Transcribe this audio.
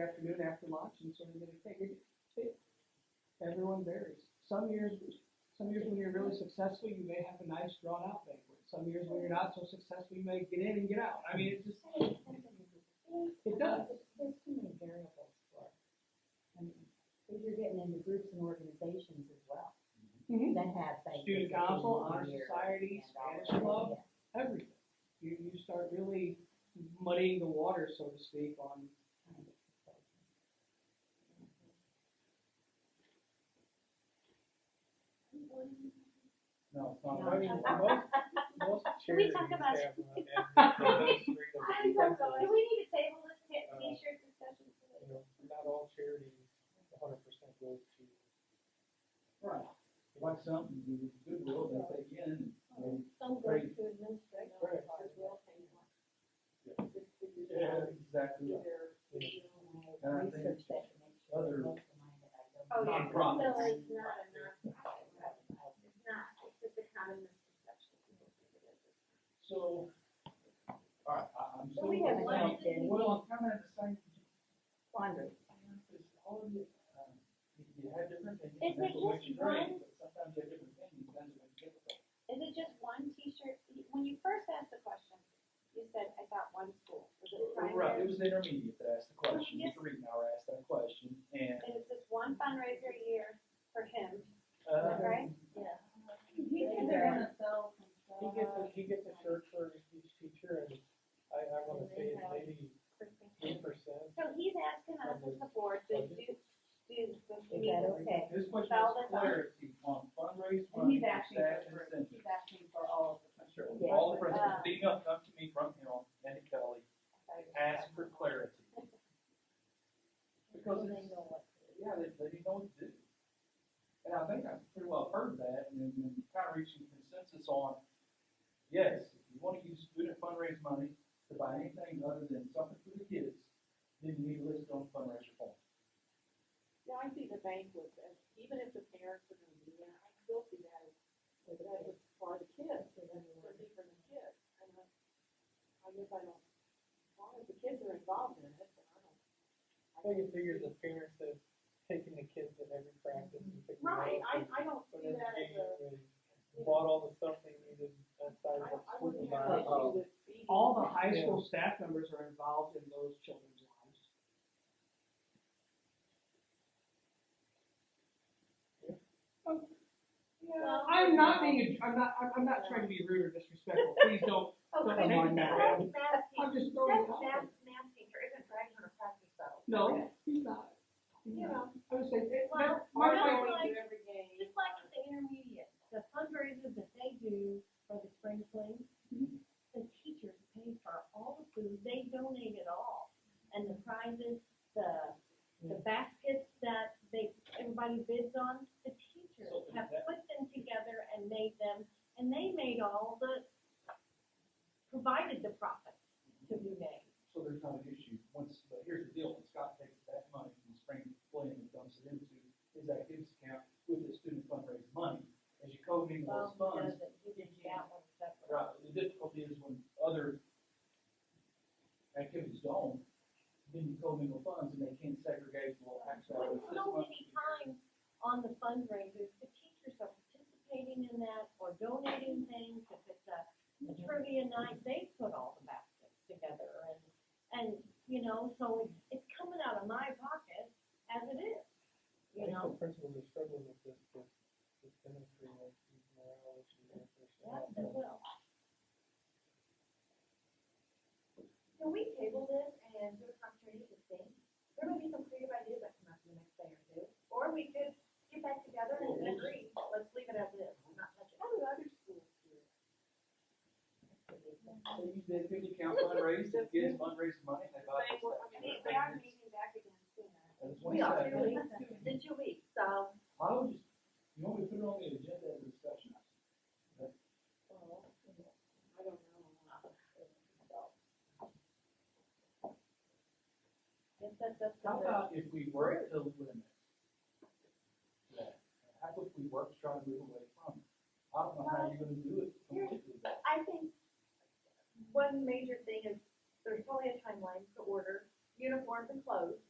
afternoon after lunch and sort of get a take. It- it- Everyone varies. Some years, some years when you're really successful, you may have a nice drawn out banquet. Some years when you're not so successful, you may get in and get out. I mean, it just, It does. There's too many variables for, I mean, if you're getting into groups and organizations as well, Mhm. that have things. Student council, honor society, Spanish club, everything. You, you start really muddying the water, so to speak, on, No, it's not. No. I mean, most, most Can we charities talk about it? have them, and that's great, I'm but so sorry. Do we need to table this t- Uh, t-shirt discussion? You know, not all charities, hundred percent goes to. Right. Watch something, you good will, they take you in. and Some go to administration Right. as well, and like, just figure they- Yeah. Exactly. right. their- And I think Research that makes sure other- it's close to mine that I don't. Oh, yeah. Nonprofits. So it's not a nonprofit, right? It's not, it's just a common misconception. So, alright, I, I'm But still. we haven't Well, done any. Well, I'm kind of the same, Laundry. because all of you, um, you- you have different opinions. Is it that's what makes just you great, one? but Sometimes you have different opinions, that's what makes it difficult. Is it just one t-shirt? When you first asked the question, you said, I thought one school. Was it Right, it primary? was the intermediate that asked the question, yes. the reading hour asked that question, and, And it's just one fundraiser a year for him. uh. right? Yeah. And they're gonna sell some stuff. He gets, a- he gets a shirt for each teacher, and I, I wanna say it's maybe eight percent. So he's asking us as the board to do, do the Is that meeting. okay? This question Well, is that's all. clarity on fundraising, And funding, he's asking staff for, incentives. he's asking for all of the. Sure, Yeah. all the presidents, Uh, being up, come to me from him, and Kelly, ask for clarity. Because They it's, know what to do. yeah, they, they know what to do. And I think I pretty well heard that, and, and kind of reaching consensus on, yes, if you wanna use student fundraise money to buy anything other than something for the kids, then you need to list it on the fundraiser form. Yeah, I see the banquets, and even if the parents are gonna be there, I still see that as, that is for the kids, and then for me, for the kids. And I, I guess I don't, as long as the kids are involved in it, then I don't. I think it figures the parents have taken the kids in every practice and picked them up. Right, I, and I don't put see in the that as a, game and Bought all the stuff they needed outside I, of I school. wouldn't have an uh, issue with feeding. all the high school staff members are involved in those children's lives. Oh, Well, I'm not being, I'm not, I'm, I'm not trying to be rude or disrespectful, please don't, Oh, Don't but mind that. that's math I'm teacher. just throwing it That's out there. math, math teacher isn't driving on a practice boat. No, he's not. You know, I would say, it- Well, my, we're not my, going- Do every game. Just like at the intermediate, The fundraisers that they do for the spring fling, the teachers pay for all the food, they donate it all. And the prizes, the, the baskets that they, everybody bids on, the teachers So is have that- put them together and made them, and they made all the, provided the profit to be made. So there's not an issue, once, but here's the deal, when Scott takes that money from spring plan and dumps it into his activities account with the student fundraising money, as you co-mingle those funds, doesn't, he did that one separate. right, the difficulty is when other activities don't, then you co-mingle funds and they can't segregate, well, actually, But it's this so one. many times on the fundraisers, the teachers are participating in that or donating things, if it's a a trivia night, they put all the baskets together and, and, you know, so it's- it's coming out of my pocket as it is, I you think know? the principals are struggling with this, this, this chemistry, like, these morale issues. and Yes, it personality. will. can we table this and do a opportunity to think? There might be some creative ideas that come up in the next day or two, or we could get back together and agree, let's leave it as is, we're not touching. How do other schools do it? They use the activity account fundraise, it gets fundraising money, and they buy. Bank, well, I I mean, mean, we are meeting back again soon. And it's We are, 27. really, in two weeks, um, so. I would just, you want me to put it on the agenda as a discussion? I don't know. Yes, that, that's. How about if we work to limit that? How about if we work to try to move away from it? I don't know how you're gonna do it completely, but I think one major thing is there's probably a timeline to order uniforms and clothes.